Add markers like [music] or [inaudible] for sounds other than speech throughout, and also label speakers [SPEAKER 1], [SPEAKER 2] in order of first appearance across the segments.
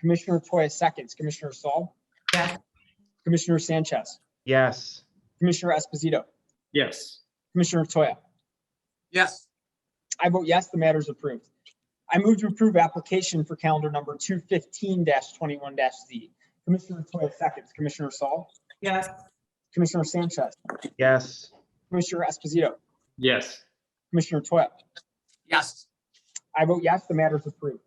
[SPEAKER 1] Commissioner Toya seconds, Commissioner Saul,
[SPEAKER 2] yes,
[SPEAKER 1] Commissioner Sanchez,
[SPEAKER 3] Yes.
[SPEAKER 1] Commissioner Esposito,
[SPEAKER 3] Yes.
[SPEAKER 1] Commissioner Toya.
[SPEAKER 4] yes,
[SPEAKER 1] I vote yes, the matter is approved. I move to approve application for calendar number two fifteen twenty-one Z. Commissioner Toya seconds, Commissioner Saul,
[SPEAKER 2] yes,
[SPEAKER 1] Commissioner Sanchez,
[SPEAKER 3] Yes.
[SPEAKER 1] Commissioner Esposito,
[SPEAKER 3] Yes.
[SPEAKER 1] Commissioner Toya.
[SPEAKER 4] yes,
[SPEAKER 1] I vote yes, the matter is approved.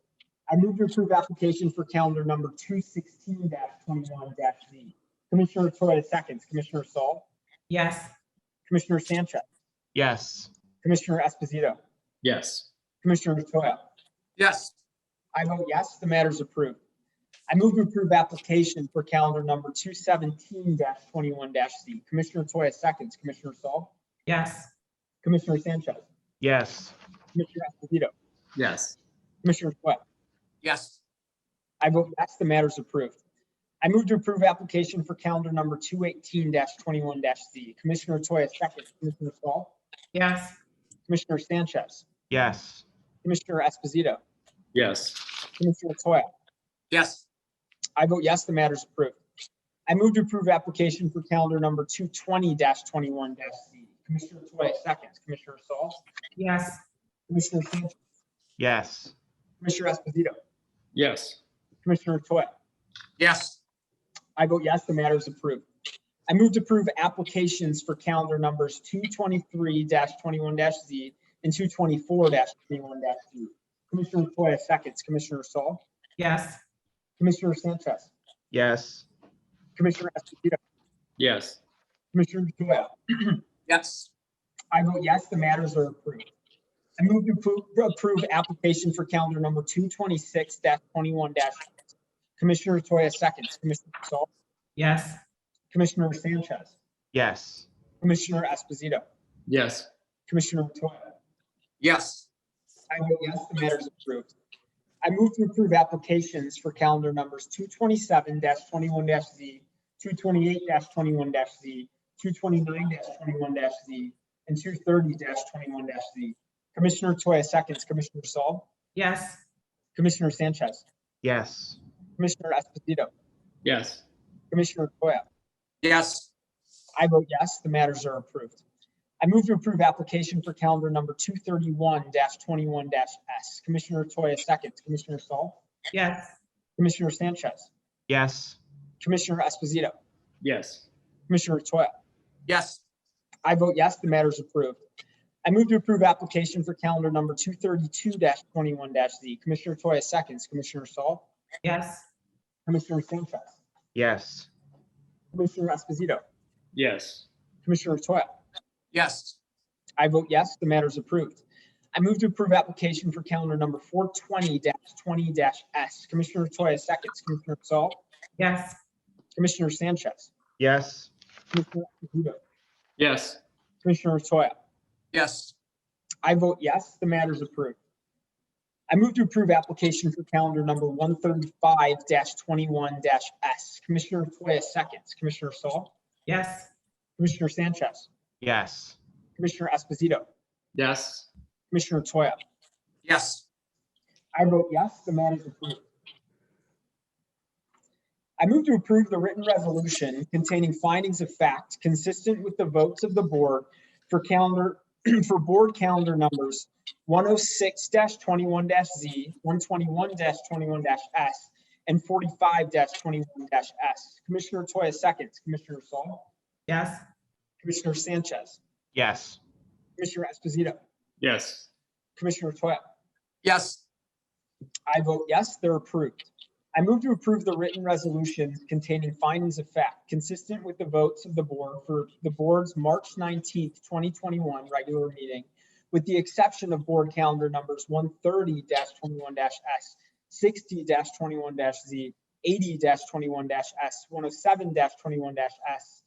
[SPEAKER 1] I move to approve application for calendar number two sixteen twenty-one Z. Commissioner Toya seconds, Commissioner Saul,
[SPEAKER 2] yes,
[SPEAKER 1] Commissioner Sanchez,
[SPEAKER 3] Yes.
[SPEAKER 1] Commissioner Esposito,
[SPEAKER 3] Yes.
[SPEAKER 1] Commissioner Toya.
[SPEAKER 4] yes,
[SPEAKER 1] I vote yes, the matter is approved. I move to approve application for calendar number two seventeen twenty-one Z. Commissioner Toya seconds, Commissioner Saul,
[SPEAKER 2] yes,
[SPEAKER 1] Commissioner Sanchez,
[SPEAKER 3] Yes.
[SPEAKER 1] Commissioner Esposito,
[SPEAKER 3] Yes.
[SPEAKER 1] Commissioner Toya.
[SPEAKER 4] yes,
[SPEAKER 1] I vote yes, the matter is approved. I move to approve application for calendar number two eighteen twenty-one Z. Commissioner Toya seconds, Commissioner Saul,
[SPEAKER 2] yes,
[SPEAKER 1] Commissioner Sanchez,
[SPEAKER 3] Yes.
[SPEAKER 1] Commissioner Esposito,
[SPEAKER 3] Yes.
[SPEAKER 1] Commissioner Toya.
[SPEAKER 4] yes,
[SPEAKER 1] I vote yes, the matter is approved. I move to approve application for calendar number two twenty twenty-one Z. Commissioner Toya seconds, Commissioner Saul,
[SPEAKER 2] yes,
[SPEAKER 1] Commissioner Sanchez,
[SPEAKER 3] Yes.
[SPEAKER 1] Commissioner Esposito,
[SPEAKER 3] Yes.
[SPEAKER 1] Commissioner Toya.
[SPEAKER 4] yes,
[SPEAKER 1] I vote yes, the matter is approved. I move to approve applications for calendar numbers two twenty-three twenty-one Z and two twenty-four twenty-one Z. Commissioner Toya seconds, Commissioner Saul,
[SPEAKER 2] yes,
[SPEAKER 1] Commissioner Sanchez,
[SPEAKER 3] Yes.
[SPEAKER 1] Commissioner Esposito,
[SPEAKER 3] Yes.
[SPEAKER 1] Commissioner Toya.
[SPEAKER 4] yes,
[SPEAKER 1] I vote yes, the matters are approved. I move to appro- approve application for calendar number two twenty-six twenty-one Commissioner Toya seconds, Commissioner Saul,
[SPEAKER 2] yes,
[SPEAKER 1] Commissioner Sanchez,
[SPEAKER 3] Yes.
[SPEAKER 1] Commissioner Esposito,
[SPEAKER 3] Yes.
[SPEAKER 1] Commissioner Toya.
[SPEAKER 4] yes,
[SPEAKER 1] I vote yes, the matter is approved. I move to approve applications for calendar numbers two twenty-seven twenty-one Z, two twenty-eight twenty-one Z, two twenty-nine twenty-one Z, and two thirty twenty-one Z. Commissioner Toya seconds, Commissioner Saul,
[SPEAKER 2] yes,
[SPEAKER 1] Commissioner Sanchez,
[SPEAKER 3] Yes.
[SPEAKER 1] Commissioner Esposito,
[SPEAKER 3] Yes.
[SPEAKER 1] Commissioner Toya.
[SPEAKER 4] yes,
[SPEAKER 1] I vote yes, the matters are approved. I move to approve application for calendar number two thirty-one twenty-one S. Commissioner Toya seconds, Commissioner Saul,
[SPEAKER 2] yes,
[SPEAKER 1] Commissioner Sanchez,
[SPEAKER 3] Yes.
[SPEAKER 1] Commissioner Esposito,
[SPEAKER 3] Yes.
[SPEAKER 1] Commissioner Toya.
[SPEAKER 4] yes,
[SPEAKER 1] I vote yes, the matter is approved. I move to approve application for calendar number 232-21-Z. Commissioner Toya seconds, Commissioner Saul,
[SPEAKER 2] yes,
[SPEAKER 1] Commissioner Sanchez,
[SPEAKER 3] Yes.
[SPEAKER 1] Commissioner Esposito,
[SPEAKER 3] Yes.
[SPEAKER 1] Commissioner Toya.
[SPEAKER 4] yes,
[SPEAKER 1] I vote yes, the matter is approved. I move to approve application for calendar number 420-20-S. Commissioner Toya seconds, Commissioner Saul,
[SPEAKER 2] yes,
[SPEAKER 1] Commissioner Sanchez,
[SPEAKER 3] Yes.
[SPEAKER 1] Commissioner Esposito,
[SPEAKER 3] Yes.
[SPEAKER 1] Commissioner Toya.
[SPEAKER 4] yes,
[SPEAKER 1] I vote yes, the matter is approved. I move to approve application for calendar number one thirty-five twenty-one S. Commissioner Toya seconds, Commissioner Saul,
[SPEAKER 2] yes,
[SPEAKER 1] Commissioner Sanchez,
[SPEAKER 3] Yes.
[SPEAKER 1] Commissioner Esposito,
[SPEAKER 3] Yes.
[SPEAKER 1] Commissioner Toya.
[SPEAKER 4] yes,
[SPEAKER 1] I vote yes, the matter is approved. I move to approve the written resolution containing findings of fact consistent with the votes of the board for calendar, [clears throat] for board calendar numbers 106-21-Z, 121-21-S, and 45-21-S. Commissioner Toya seconds, Commissioner Saul,
[SPEAKER 2] yes,
[SPEAKER 1] Commissioner Sanchez,
[SPEAKER 3] Yes.
[SPEAKER 1] Commissioner Esposito,
[SPEAKER 3] Yes.
[SPEAKER 1] Commissioner Toya.
[SPEAKER 4] yes,
[SPEAKER 1] I vote yes, they're approved. I move to approve the written resolutions containing findings of fact consistent with the votes of the board for the board's March 19th, 2021 regular meeting, with the exception of board calendar numbers 130-21-S, 60-21-Z, 80-21-S, 107-21-S,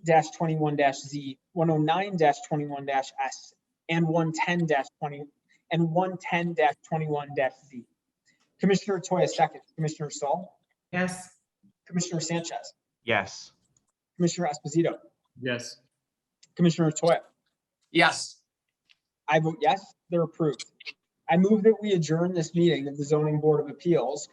[SPEAKER 1] 108-21-Z, 109-21-S, and 110-20, and one ten twenty-one Z. Commissioner Toya seconds, Commissioner Saul,
[SPEAKER 2] yes,
[SPEAKER 1] Commissioner Sanchez,
[SPEAKER 3] Yes.
[SPEAKER 1] Commissioner Esposito,
[SPEAKER 3] Yes.
[SPEAKER 1] Commissioner Toya.
[SPEAKER 4] yes,
[SPEAKER 1] I vote yes, they're approved. I move that we adjourn this meeting of the Zoning Board of Appeals